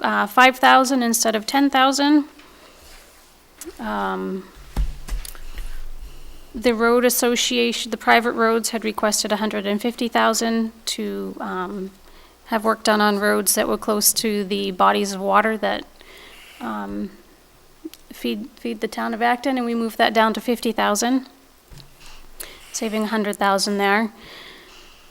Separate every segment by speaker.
Speaker 1: uh, 5,000 instead of 10,000. Um, The road association, the private roads had requested 150,000 to um, have work done on roads that were close to the bodies of water that um, feed, feed the town of Acton, and we moved that down to 50,000, saving 100,000 there.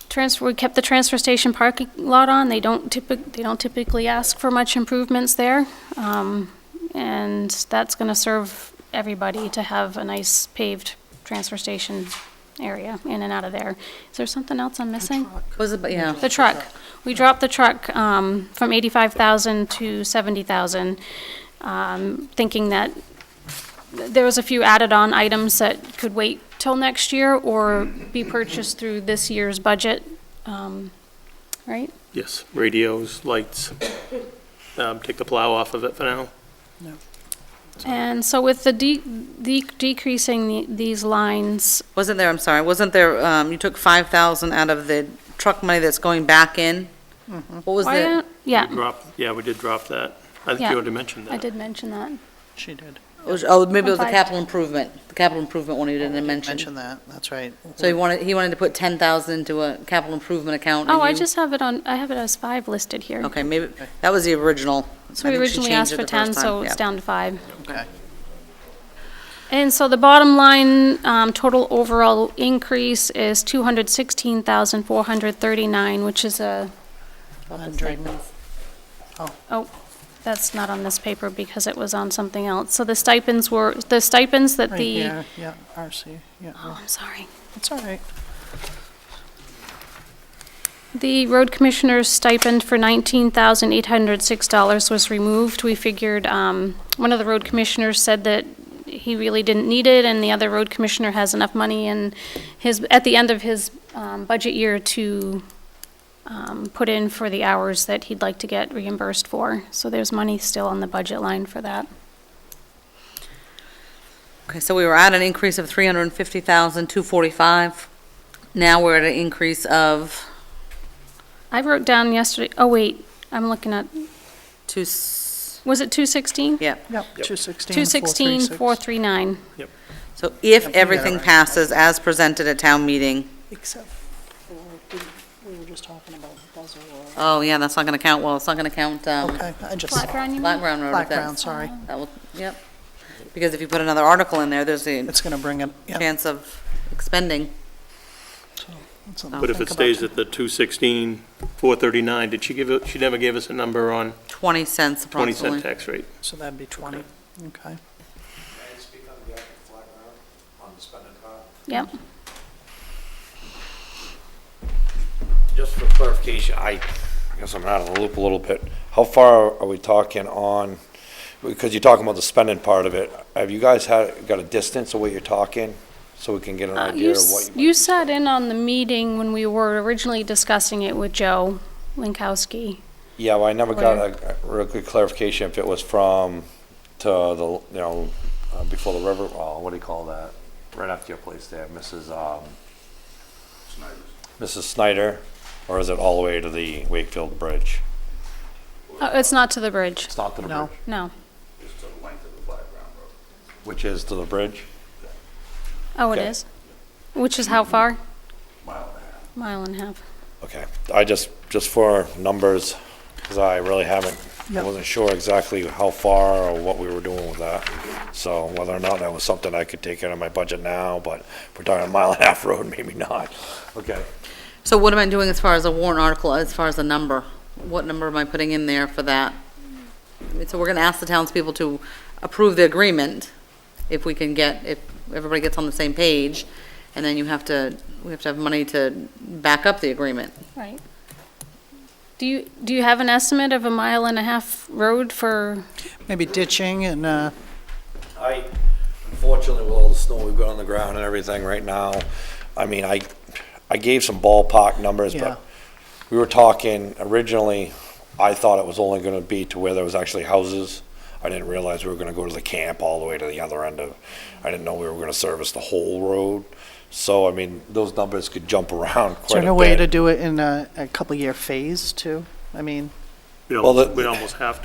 Speaker 1: Transfer, we kept the transfer station parking lot on, they don't typically, they don't typically ask for much improvements there. Um, And that's gonna serve everybody to have a nice paved transfer station area in and out of there. Is there something else I'm missing?
Speaker 2: Was it, yeah.
Speaker 1: The truck. We dropped the truck um, from 85,000 to 70,000, um, thinking that th- there was a few added-on items that could wait till next year or be purchased through this year's budget, um, right?
Speaker 3: Yes, radios, lights. Um, Take the plow off of it for now.
Speaker 1: And so with the de- de- decreasing the- these lines,
Speaker 2: Wasn't there, I'm sorry, wasn't there, um, you took five thousand out of the truck money that's going back in? What was
Speaker 1: why
Speaker 2: the,
Speaker 1: don't- yeah,
Speaker 3: Drop, yeah, we did drop that. I think
Speaker 1: Yeah,
Speaker 3: you already mentioned
Speaker 1: I
Speaker 3: that.
Speaker 1: did mention that.
Speaker 4: She did.
Speaker 2: was- oh, maybe it was the
Speaker 1: Five.
Speaker 2: capital improvement, the capital improvement one you didn't
Speaker 4: Mention
Speaker 2: mention.
Speaker 4: that, that's right.
Speaker 2: So he wanted, he wanted to put ten thousand into a capital improvement account. and
Speaker 1: Oh, I
Speaker 2: you-
Speaker 1: just have it on, I have it as five listed here.
Speaker 2: Okay, maybe, that was the original.
Speaker 1: So we
Speaker 2: I think she
Speaker 1: originally
Speaker 2: changed
Speaker 1: asked
Speaker 2: it
Speaker 1: for
Speaker 2: the
Speaker 1: 10,
Speaker 2: first
Speaker 1: so
Speaker 2: time,
Speaker 1: it's
Speaker 2: yeah.
Speaker 1: down to five.
Speaker 4: Okay.
Speaker 1: And so the bottom line, um, total overall increase is two hundred sixteen thousand four hundred thirty-nine, which is a, oh, that's not on this paper because it was on something else. So the stipends were, the stipends that
Speaker 4: Right
Speaker 1: the,
Speaker 4: here, yeah, RC, yeah,
Speaker 1: oh, I'm sorry.
Speaker 4: it's all right.
Speaker 1: The road commissioner's stipend for nineteen thousand eight hundred six dollars was removed. We figured, um, one of the road commissioners said that he really didn't need it, and the other road commissioner has enough money in his, at the end of his, um, budget year to, um, put in for the hours that he'd like to get reimbursed for. So there's money still on the budget line for that.
Speaker 2: Okay, so we were at an increase of three hundred and fifty thousand, two forty-five. Now we're at an increase of
Speaker 1: I wrote down yesterday, oh wait, I'm looking at,
Speaker 2: two, s-
Speaker 1: was it two sixteen?
Speaker 2: yeah.
Speaker 4: Yep, 216,
Speaker 1: Two sixteen, four three nine.
Speaker 2: So if
Speaker 4: got it
Speaker 2: everything
Speaker 4: right.
Speaker 2: passes as presented at town meeting,
Speaker 4: Except for, we were just talking about Buzzell Road.
Speaker 2: oh yeah, that's not gonna count, well, it's not gonna count, um,
Speaker 4: Okay, I just,
Speaker 1: Flat ground, you mean?
Speaker 2: Black Ground Road.
Speaker 4: Black
Speaker 2: if that's-
Speaker 4: Ground, sorry.
Speaker 2: That will, yep. Because if you put another article in there, there's a
Speaker 4: It's going to bring it, yeah.
Speaker 2: chance of expending.
Speaker 4: it's something to
Speaker 3: But if
Speaker 4: think
Speaker 3: it
Speaker 4: about.
Speaker 3: stays at the 216, 439, did she give, a- she never gave us a number on
Speaker 2: 20 cents
Speaker 3: 20 cent
Speaker 2: approximately.
Speaker 3: tax rate?
Speaker 4: So that'd be 20, okay.
Speaker 5: Can I speak on behalf of Flat Ground on the spending part?
Speaker 1: Yep.
Speaker 5: Just for clarification, I, I guess I'm out of the loop a little bit. How far are we talking on, because you're talking about the spending part of it. Have you guys had, got a distance of what you're talking? So we can get an
Speaker 1: Uh, You
Speaker 5: idea of
Speaker 1: s-
Speaker 5: what you.
Speaker 1: you sat in on the meeting when we were originally discussing it with Joe Lankowski.
Speaker 5: Yeah, well, I never got a a real good clarification if it was from to the, you know, uh, before the river, oh, what do you call that? Right after your place there, Mrs. Um. Mrs. Snyder, or is it all the way to the Wakefield Bridge?
Speaker 1: Uh, It's not to the bridge,
Speaker 5: It's not to the
Speaker 4: No.
Speaker 5: bridge.
Speaker 1: no.
Speaker 5: Which is to the bridge?
Speaker 1: Oh, it
Speaker 5: Okay.
Speaker 1: is? Which is how far? Mile and a half. Mile and a half.
Speaker 5: Okay, I just, just for numbers, because I really haven't, I
Speaker 4: Yep.
Speaker 5: wasn't sure exactly how far or what we were doing with that. So whether or not that was something I could take out of my budget now, but if we're talking a mile and a half road, maybe not. Okay.
Speaker 2: So what am I doing as far as a warrant article, as far as a number? What number am I putting in there for that? I mean, So we're going to ask the townspeople to approve the agreement if we can get, if everybody gets on the same page, and then you have to, we have to have money to back up the agreement.
Speaker 1: Right. Do you, do you have an estimate of a mile and a half road for,
Speaker 4: Maybe ditching and, uh,
Speaker 5: I, unfortunately, with all the snow we've got on the ground and everything right now, I mean, I, I gave some ballpark numbers,
Speaker 4: Yeah.
Speaker 5: but we were talking originally, I thought it was only gonna be to where there was actually houses. I didn't realize we were gonna go to the camp all the way to the other end of, I didn't know we were gonna service the whole road. So, I mean, those numbers could jump around
Speaker 4: is there
Speaker 5: quite
Speaker 4: no
Speaker 5: a
Speaker 4: way to
Speaker 5: bit.
Speaker 4: do it in a, a couple year phase too? I mean.
Speaker 3: We'd
Speaker 5: Well,
Speaker 3: almost
Speaker 5: the-
Speaker 3: we'd almost have to.